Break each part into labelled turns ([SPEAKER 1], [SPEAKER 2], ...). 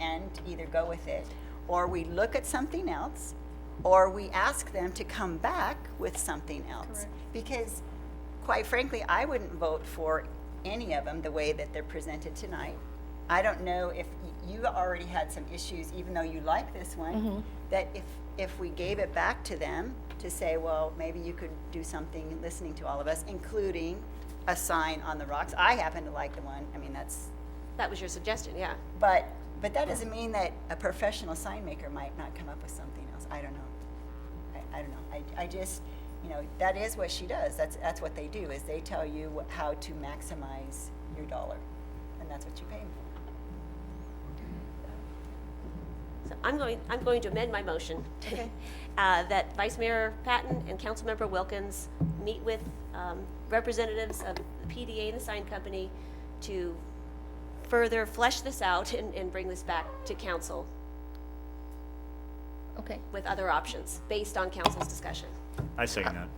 [SPEAKER 1] and either go with it, or we look at something else, or we ask them to come back with something else.
[SPEAKER 2] Correct.
[SPEAKER 1] Because quite frankly, I wouldn't vote for any of them the way that they're presented tonight. I don't know if y- you already had some issues, even though you like this one, that if, if we gave it back to them to say, well, maybe you could do something, listening to all of us, including a sign on the rocks. I happen to like the one, I mean, that's,
[SPEAKER 2] That was your suggestion, yeah.
[SPEAKER 1] but, but that doesn't mean that a professional sign maker might not come up with something else. I don't know. I, I don't know. I, I just, you know, that is what she does. That's, that's what they do, is they tell you wh- how to maximize your dollar. And that's what you pay 'em for.
[SPEAKER 2] So I'm going, I'm going to amend my motion.
[SPEAKER 1] Okay.
[SPEAKER 2] Uh, That Vice Mayor Patton and Councilmember Wilkins meet with um, representatives of the PDA and the sign company to further flesh this out and, and bring this back to council
[SPEAKER 3] Okay,
[SPEAKER 2] with other options, based on council's discussion.
[SPEAKER 4] I second that.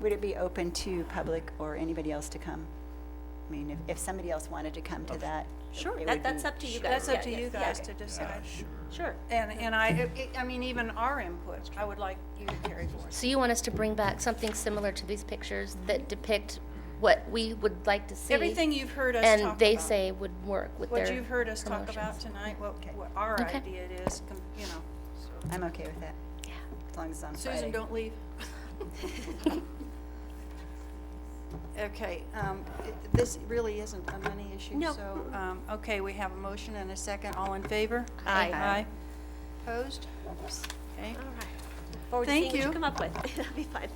[SPEAKER 1] Would it be open to public or anybody else to come? I mean, if, if somebody else wanted to come to that, it would
[SPEAKER 2] That, that's
[SPEAKER 1] be-
[SPEAKER 2] up to you guys.
[SPEAKER 5] That's up
[SPEAKER 2] Yeah,
[SPEAKER 5] to
[SPEAKER 2] yeah,
[SPEAKER 5] you
[SPEAKER 2] yeah.
[SPEAKER 5] guys to decide.
[SPEAKER 2] Sure.
[SPEAKER 5] And, and I, it- it- I mean, even our input, I would like you to carry forward.
[SPEAKER 3] so you want us to bring back something similar to these pictures that depict what we would like to see?
[SPEAKER 5] Everything you've heard us talk about.
[SPEAKER 3] And they say would work with their
[SPEAKER 5] What
[SPEAKER 3] promotions.
[SPEAKER 5] you've heard us talk about tonight, what, what our
[SPEAKER 3] Okay.
[SPEAKER 5] idea it is, com- you know.
[SPEAKER 1] I'm okay with that. Yeah. As long as it's on
[SPEAKER 5] so.
[SPEAKER 1] Friday.
[SPEAKER 5] Susan, don't leave. Okay, um, it- this really isn't a money issue,
[SPEAKER 2] No.
[SPEAKER 5] so, um, okay, we have a motion and a second. All in favor?
[SPEAKER 3] Aye.
[SPEAKER 5] Aye. Opposed?
[SPEAKER 2] All
[SPEAKER 5] Okay.
[SPEAKER 2] right. Look Forward to
[SPEAKER 5] Thank
[SPEAKER 2] seeing what you
[SPEAKER 5] you.
[SPEAKER 2] come up with. That'll be fun.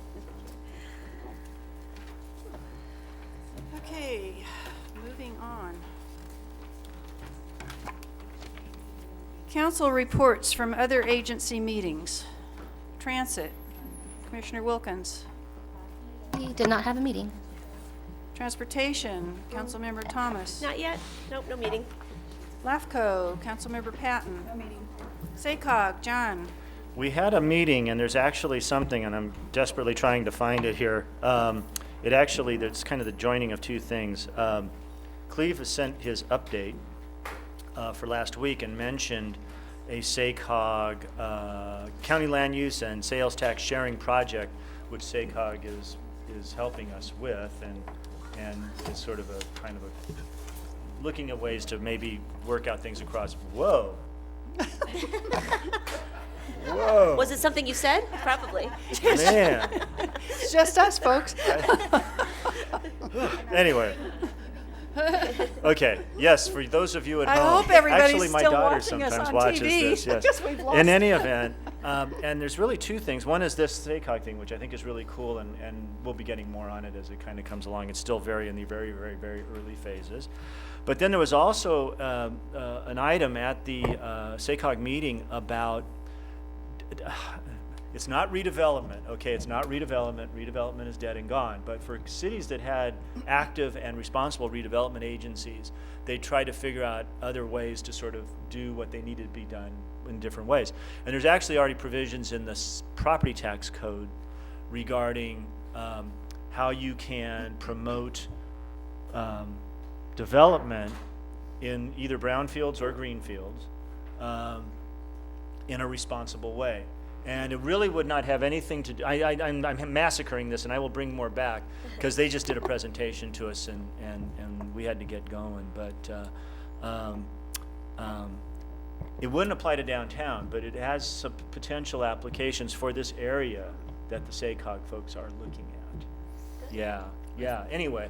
[SPEAKER 5] Okay, moving on. Council reports from other agency meetings. Transit, Commissioner Wilkins.
[SPEAKER 3] We did not have a meeting.
[SPEAKER 5] Transportation, Councilmember Thomas.
[SPEAKER 2] Not yet? Nope, no meeting.
[SPEAKER 5] LAFCO, Councilmember Patton. No meeting. SACOG, John.
[SPEAKER 4] We had a meeting, and there's actually something, and I'm desperately trying to find it here. Um, It actually, that's kind of the joining of two things. Um, Cleve has sent his update uh, for last week and mentioned a SACOG, uh, County Land Use and Sales Tax Sharing Project, which SACOG is, is helping us with, and, and is sort of a, kind of a, looking at ways to maybe work out things across, whoa. Whoa.
[SPEAKER 2] Was it something you said? Probably.
[SPEAKER 4] Man.
[SPEAKER 5] It's just us, folks.
[SPEAKER 4] Anyway. Okay. Yes, for those of you at
[SPEAKER 5] I
[SPEAKER 4] home.
[SPEAKER 5] hope everybody's
[SPEAKER 4] Actually, my
[SPEAKER 5] still
[SPEAKER 4] daughter
[SPEAKER 5] watching us
[SPEAKER 4] sometimes
[SPEAKER 5] on
[SPEAKER 4] watches
[SPEAKER 5] TV.
[SPEAKER 4] this.
[SPEAKER 5] I
[SPEAKER 4] Yes.
[SPEAKER 5] guess we've lost
[SPEAKER 4] In any event, um, and there's really two things. One is this SACOG thing, which I think is really cool, and, and we'll be getting more on it as it kind of comes along. It's still very in the very, very, very early phases. But then there was also um, uh, an item at the uh, SACOG meeting about it's not redevelopment, okay, it's not redevelopment, redevelopment is dead and gone, but for cities that had active and responsible redevelopment agencies, they tried to figure out other ways to sort of do what they needed to be done in different ways. And there's actually already provisions in the s- property tax code regarding, um, how you can promote, um, development in either brownfields or greenfields, um, in a responsible way. And it really would not have anything to do, I, I, I'm, I'm massacring this and I will bring more back because they just did a presentation to us and, and, and we had to get going. But uh, um, um, it wouldn't apply to downtown, but it has some potential applications for this area that the SACOG folks are looking at. Yeah, yeah. Anyway,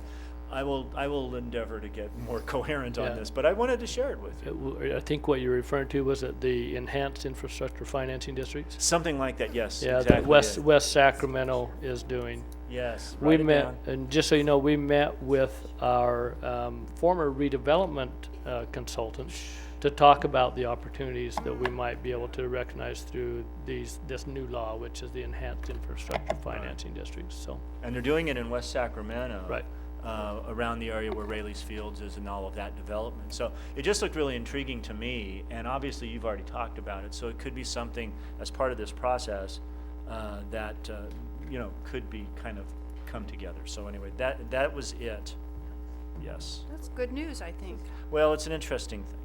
[SPEAKER 4] I will, I will endeavor to get more coherent
[SPEAKER 6] Yeah.
[SPEAKER 4] on this, but I wanted to share it with you.
[SPEAKER 6] It w- I think what you're referring to was it the enhanced infrastructure financing districts?
[SPEAKER 4] Something like that, yes.
[SPEAKER 6] Yeah, that
[SPEAKER 4] exactly
[SPEAKER 6] West,
[SPEAKER 4] it.
[SPEAKER 6] West Sacramento is doing.
[SPEAKER 4] Yes.
[SPEAKER 6] We
[SPEAKER 4] write it
[SPEAKER 6] met,
[SPEAKER 4] down.
[SPEAKER 6] and just so you know, we met with our um, former redevelopment uh, consultant to talk about the opportunities that we might be able to recognize through these, this new law, which is the enhanced infrastructure financing districts, so.
[SPEAKER 4] And they're doing it in West Sacramento.
[SPEAKER 6] Right.
[SPEAKER 4] Uh, around the area where Rayleigh's Fields is and all of that development. So it just looked really intriguing to me, and obviously you've already talked about it, so it could be something as part of this process, uh, that, uh, you know, could be kind of come together. So anyway, that, that was it. Yes.
[SPEAKER 5] That's good news, I think.
[SPEAKER 4] Well, it's an interesting thing.